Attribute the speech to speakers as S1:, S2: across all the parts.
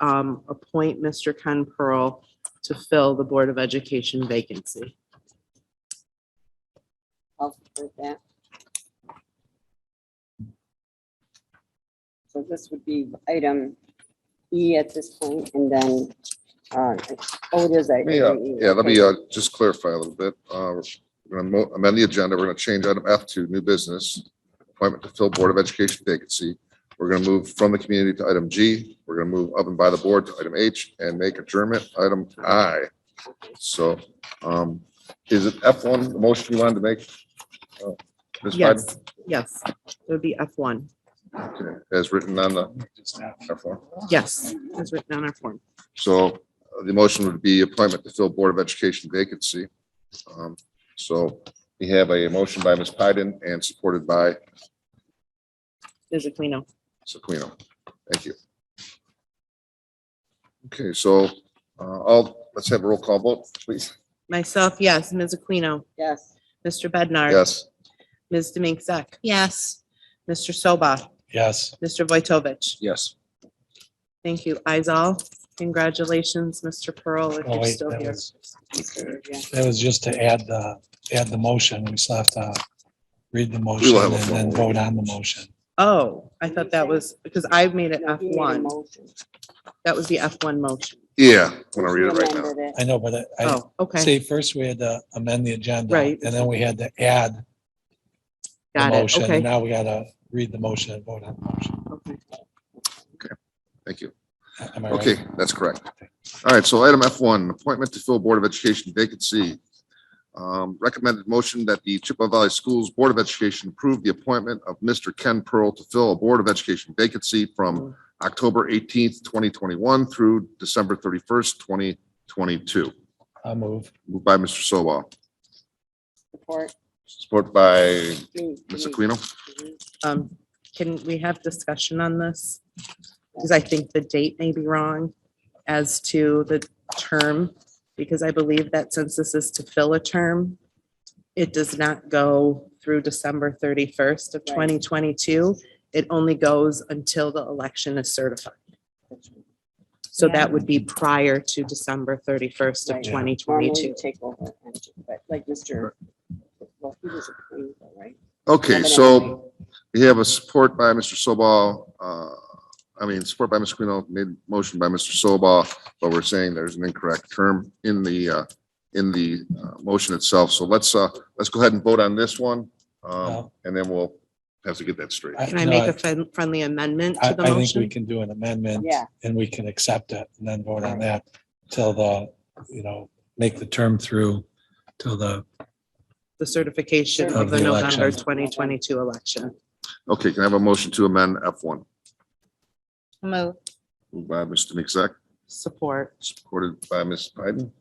S1: um, appoint Mr. Ken Pearl to fill the Board of Education vacancy.
S2: I'll support that. So this would be item E at this point, and then, uh, oh, it is. item
S3: Yeah,
S2: E,
S3: yeah, let
S2: okay.
S3: me uh, just clarify a little bit. Uh, We're going to amend the agenda. We're going to change item F to new business, appointment to fill Board of Education vacancy. We're going to move from the community to item G. We're going to move up and by the board to item H and make adjournment item I. So um, is it F1, the motion you wanted to make? uh, Ms. Biden?
S1: Yes, yes, it would be F one.
S3: Okay, As written on the F1.
S1: Yes, as written on our form.
S3: So uh, the motion would be appointment to fill Board of Education vacancy. Um, So we have a motion by Ms. Pyden and supported by
S1: There's a clean up.
S3: Sequino. Thank you. Okay, so uh, I'll, let's have a roll call vote, please.
S1: Myself, yes. Ms. Aquino,
S2: Yes.
S1: Mr. Bednar.
S3: Yes,
S1: Ms. Demink Zek. Yes. Mr. Soba,
S4: Yes.
S1: Mr. Vojtovich.
S5: Yes.
S1: Thank you. Eyes all. Congratulations, Mr. Pearl, if
S4: Oh,
S1: you're
S4: wait,
S1: still
S4: that
S1: here.
S4: was, that was just to add, the add the motion. We still have to read the motion
S3: have
S4: and
S3: a
S4: then
S3: formal-
S4: vote on the motion.
S1: Oh, I thought that was, because I made it
S2: No,
S1: F
S2: he made a
S1: one.
S2: motion.
S1: That was the F one motion.
S3: yeah, when I read it right now.
S2: Amended it.
S4: I know, but I,
S1: Oh, okay,
S4: see, first we had to amend the agenda.
S1: Right.
S4: And then we had to add the
S1: got it.
S4: motion. And
S1: Okay.
S4: now we gotta read the motion and vote on the motion.
S1: okay.
S3: Thank you.
S4: Am I right?
S3: Okay, that's correct. All right, so item F1, appointment to fill Board of Education vacancy. Um, Recommended motion that the Chippewa Valley Schools Board of Education approve the appointment of Mr. Ken Pearl to fill a Board of Education vacancy from October 18th, 2021 through December 31st, 2022.
S4: I'll move.
S3: Moved by Mr. Sobah,
S2: Support.
S3: support by
S2: Me,
S3: Ms.
S2: me.
S3: Aquino.
S2: Mhm.
S1: Um, can we have discussion on this? Because I think the date may be wrong as to the term, because I believe that since this is to fill a term, it does not go through December thirty-first of
S2: Right.
S1: twenty twenty-two. It only goes until the election is certified. So that would be prior to December thirty-first of
S2: Right.
S1: twenty
S2: Normally you
S1: twenty-two.
S2: take over, but like Mr. Well, he was approved, though, right?
S3: Okay, so we have a support by Mr. Sobal, uh, I mean, support by Ms. Quino, made motion by Mr. Sobal, but we're saying there's an incorrect term in the, uh, in the, uh, motion itself. So let's, uh, let's go ahead and vote on this one. Um,
S4: No.
S3: and then we'll have to get that straight.
S1: Can I
S4: no,
S1: make a friend- friendly amendment
S4: I,
S1: to the
S4: I think we
S1: motion?
S4: can do an amendment
S2: Yeah.
S4: and we can accept it and then vote on that till the, you know, make the term through till the,
S1: The certification
S2: Of
S1: of the
S4: the
S1: November
S4: election.
S1: twenty twenty-two election.
S3: Okay, can I have a motion to amend F one?
S1: Move.
S3: Moved by Mr. Mixak,
S1: Support.
S3: supported by Ms. Pyden.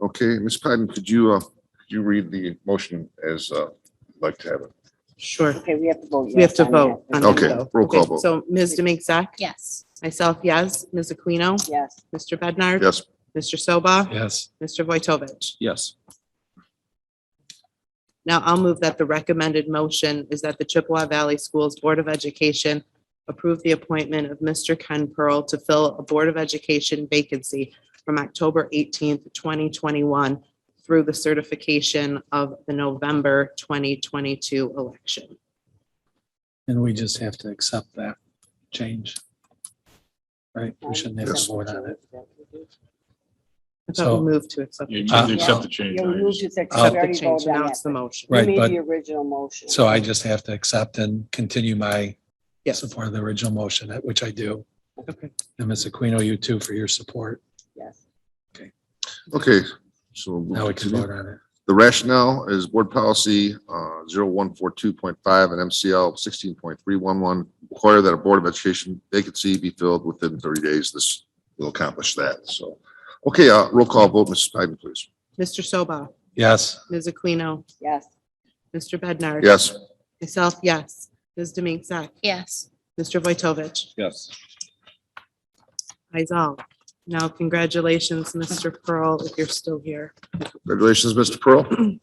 S3: Okay, Ms. Pyden, could you, uh, could you read the motion as, uh, you'd like to have it?
S1: Sure.
S2: Okay, we have to vote.
S1: We have
S2: yes
S1: to
S2: on
S1: vote.
S2: that.
S1: on that,
S3: Okay,
S1: though.
S3: roll call
S1: Okay,
S3: vote.
S1: So Ms. Demink Zak,
S6: Yes.
S1: myself, yes. Ms. Aquino,
S2: Yes.
S1: Mr. Bednar.
S3: Yes,
S1: Mr. Soba,
S4: yes.
S1: Mr. Vojtovich.
S5: Yes.
S1: Now I'll move that the recommended motion is that the Chippewa Valley Schools Board of Education approve the appointment of Mr. Ken Pearl to fill a Board of Education vacancy from October eighteenth, twenty twenty-one through the certification of the November twenty twenty-two election.
S4: And we just have to accept that change. Right, we shouldn't have to vote on it.
S1: I thought
S4: So-
S1: we moved to accept.
S7: You
S1: the
S7: you
S4: Uh,
S7: can accept the change.
S2: Yeah,
S7: I
S2: we moved
S7: understand.
S2: to six.
S4: Accept
S2: We
S1: Accept
S2: already
S1: the change,
S2: voted on
S1: now
S2: that,
S1: it's the motion.
S2: but
S4: Right,
S2: You
S4: but-
S2: made the original motion.
S4: So I just have to accept and continue my
S1: Yes.
S4: support of the original motion, which I do.
S1: Okay.
S4: And Ms. Aquino, you too, for your support.
S2: Yes.
S3: okay, so.
S4: Now we can vote on it.
S3: The rationale is board policy uh, 0142.5 and MCL 16.311 require that a Board of Education vacancy be filled within 30 days. This will accomplish that, so. Okay, uh, roll call vote, Mrs. Pyden, please.
S1: Mr. Soba,
S4: Yes.
S1: Ms. Aquino,
S2: Yes.
S1: Mr. Bednar.
S3: Yes,
S1: Myself, yes. Ms. Demink Zak,
S6: Yes.
S1: Mr. Vojtovich.
S5: Yes.
S1: Eyes all. Now, congratulations, Mr. Pearl, if you're still here.
S3: congratulations, Mr. Pearl.